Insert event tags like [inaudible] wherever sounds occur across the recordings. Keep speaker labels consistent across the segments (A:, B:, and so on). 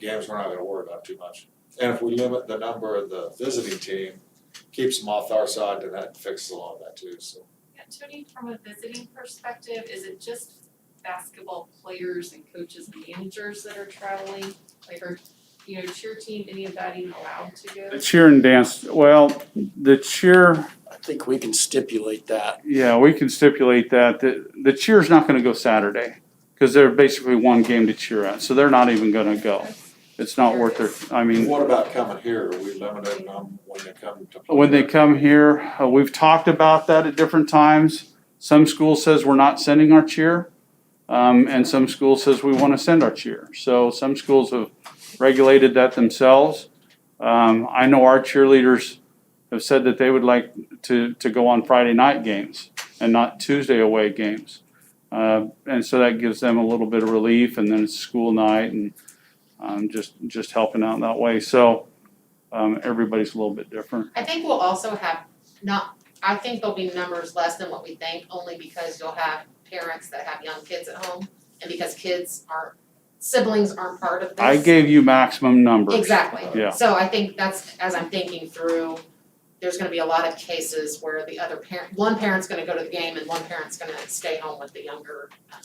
A: games we're not gonna worry about too much. And if we limit the number of the visiting team, keeps them off our side, then that fixes a lot of that too, so.
B: Yeah, Tony, from a visiting perspective, is it just basketball players and coaches and managers that are traveling? Like are, you know, cheer team, any of that even allowed to go?
C: The cheer and dance, well, the cheer,
D: I think we can stipulate that.
C: yeah, we can stipulate that, the, the cheer's not gonna go Saturday. Cause they're basically one game to cheer at, so they're not even gonna go. It's not worth their, I mean.
A: What about coming here, are we limiting them when they come to? play?
C: when they come here, uh, we've talked about that at different times. Some school says we're not sending our cheer, um, and some school says we want to send our cheer. So some schools have regulated that themselves. Um, I know our cheerleaders have said that they would like to, to go on Friday night games and not Tuesday away games. Uh, and so that gives them a little bit of relief, and then it's school night, and um, just just helping out in that way. So um, everybody's a little bit different.
E: I think we'll also have not, I think there'll be numbers less than what we think, only because you'll have parents that have young kids at home and because kids aren't, siblings aren't part of this.
C: I gave you maximum numbers.
E: Exactly.
C: Yeah.
E: So I think that's, as I'm thinking through, there's gonna be a lot of cases where the other parent, one parent's gonna go to the game and one parent's gonna stay home with the younger um,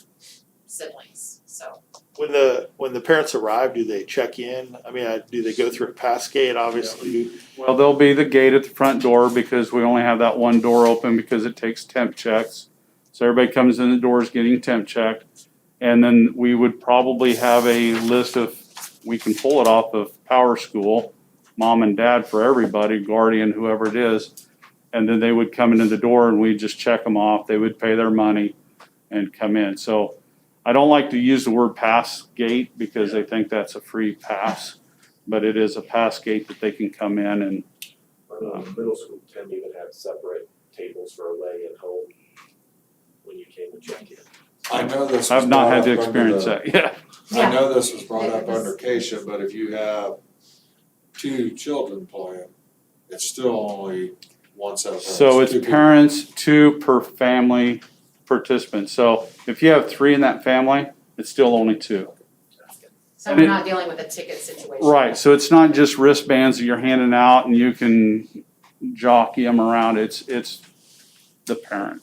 E: siblings, so.
F: When the when the parents arrive, do they check in? I mean, I- do they go through a pass gate? Obviously,
C: Well, there'll be the gate at the front door because we only have that one door open because it takes temp checks. So everybody comes in the doors getting temp checked. And then we would probably have a list of, we can pull it off of Power School, mom and dad for everybody, guardian, whoever it is. And then they would come into the door and we'd just check them off. They would pay their money and come in. So I don't like to use the word pass gate because they think that's a free pass. but it is a pass gate that they can come in and,
G: I know the Um, middle school didn't even have separate tables for away and home when you came to check in.
A: I know this was
C: I've not had to
A: brought up under
C: experience
A: the-
C: that, yeah.
A: I
E: Yeah.
A: know this was brought
B: Yeah,
A: up
B: it was-
A: under Keisha, but if you have two children playing, it's still only one set of parents.
C: So it's
A: two people.
C: parents, two per family participant, so if you have three in that family, it's still only two.
E: So we're not dealing with a ticket situation.
C: Right, so it's not just wristbands that you're handing out and you can jockey them around, it's, it's the parent.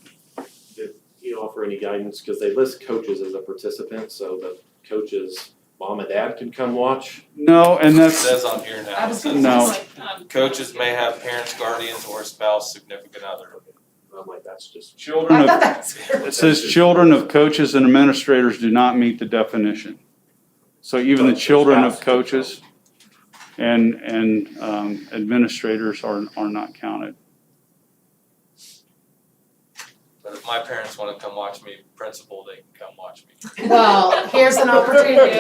G: Do you offer any guidance, because they list coaches as a participant, so the coaches, mom and dad can come watch?
C: No, and
H: It
C: that's,
H: says on here
B: I
H: now, it
B: was
H: says
B: gonna
C: No.
B: say like, um.
H: coaches may have parents, guardians, or spouse, significant other.
G: And I'm like, that's just.
C: children
E: I
C: of,
E: thought that's weird.
C: it says children of coaches and administrators do not meet the definition. So even the
G: But
C: children of
G: spouse could
C: coaches. And, and um, administrators are, are not counted.
H: But if my parents wanna come watch me, principal, they can come watch
E: [laughs]
H: me.
E: Well, here's
A: [laughs]
E: an opportunity.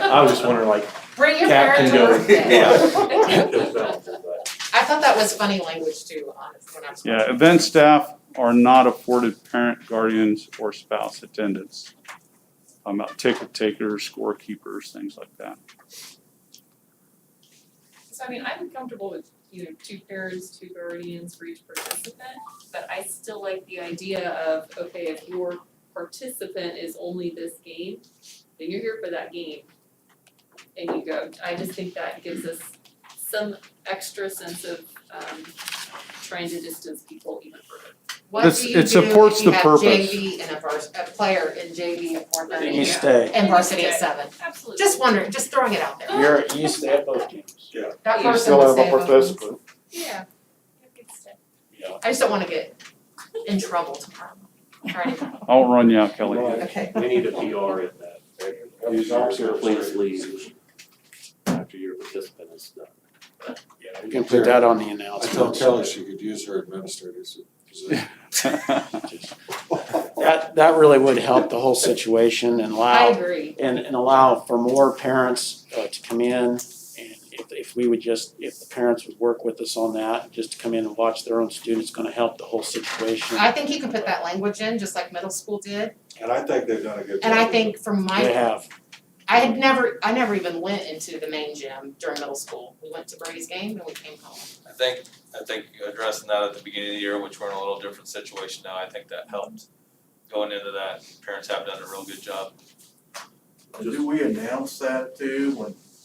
G: I was just wondering, like,
E: Bring your
G: Cap can
E: parent to
G: go. [laughs]
E: work day.
G: there's not, but
E: I thought that was funny language too, honestly, when I was.
C: Yeah, event staff are not afforded parent, guardians, or spouse attendance. I'm about ticket takers, scorekeepers, things like that.
B: So I mean, I'm comfortable with, you know, two parents, two guardians for each participant, but I still like the idea of, okay, if your participant is only this game, then you're here for that game. And you go, I just think that gives us some extra sense of um trying to distance people even further.
E: What
C: This-
E: do
C: it
E: you do if
C: supports
E: you
C: the
E: have
C: purpose.
E: JV and a vers- a player in JV at four
D: Let
E: thirty
D: me
B: Yeah.
D: stay.
E: and varsity at seven?
B: Absolutely.
E: Just wondering, just throwing it out there.
D: You're, you stay at both games.
E: That
B: You
E: person would stay at both games.
B: Yeah. Good stuff.
E: I just don't wanna get in trouble tomorrow. Alrighty,
C: I'll run you out, Kelly.
G: Right.
E: okay.
G: We need a PR in that.
A: Use our service.
G: Please leave after your participant is done.
A: Yeah,
D: We can put that on the announcement.
A: I told Kelly she could use her administrator's
G: [laughs]
A: position.
C: [laughs]
D: That, that really would help the whole situation and
E: I
D: allow,
E: agree.
D: and, and allow for more parents uh, to come in. And if, if we would just, if the parents would work with us on that, just to come in and watch their own students, gonna help the whole situation.
E: I think you can put that language in, just like middle school did.
A: And I think they've done a good job.
E: And I think from my
D: They have.
E: I had never, I never even went into the main gym during middle school. We went to Brady's game and we came home.
H: I think, I think addressing that at the beginning of the year, which we're in a little different situation now, I think that helped. Going into that, parents have done a real good job.
I: Do we announce that too, when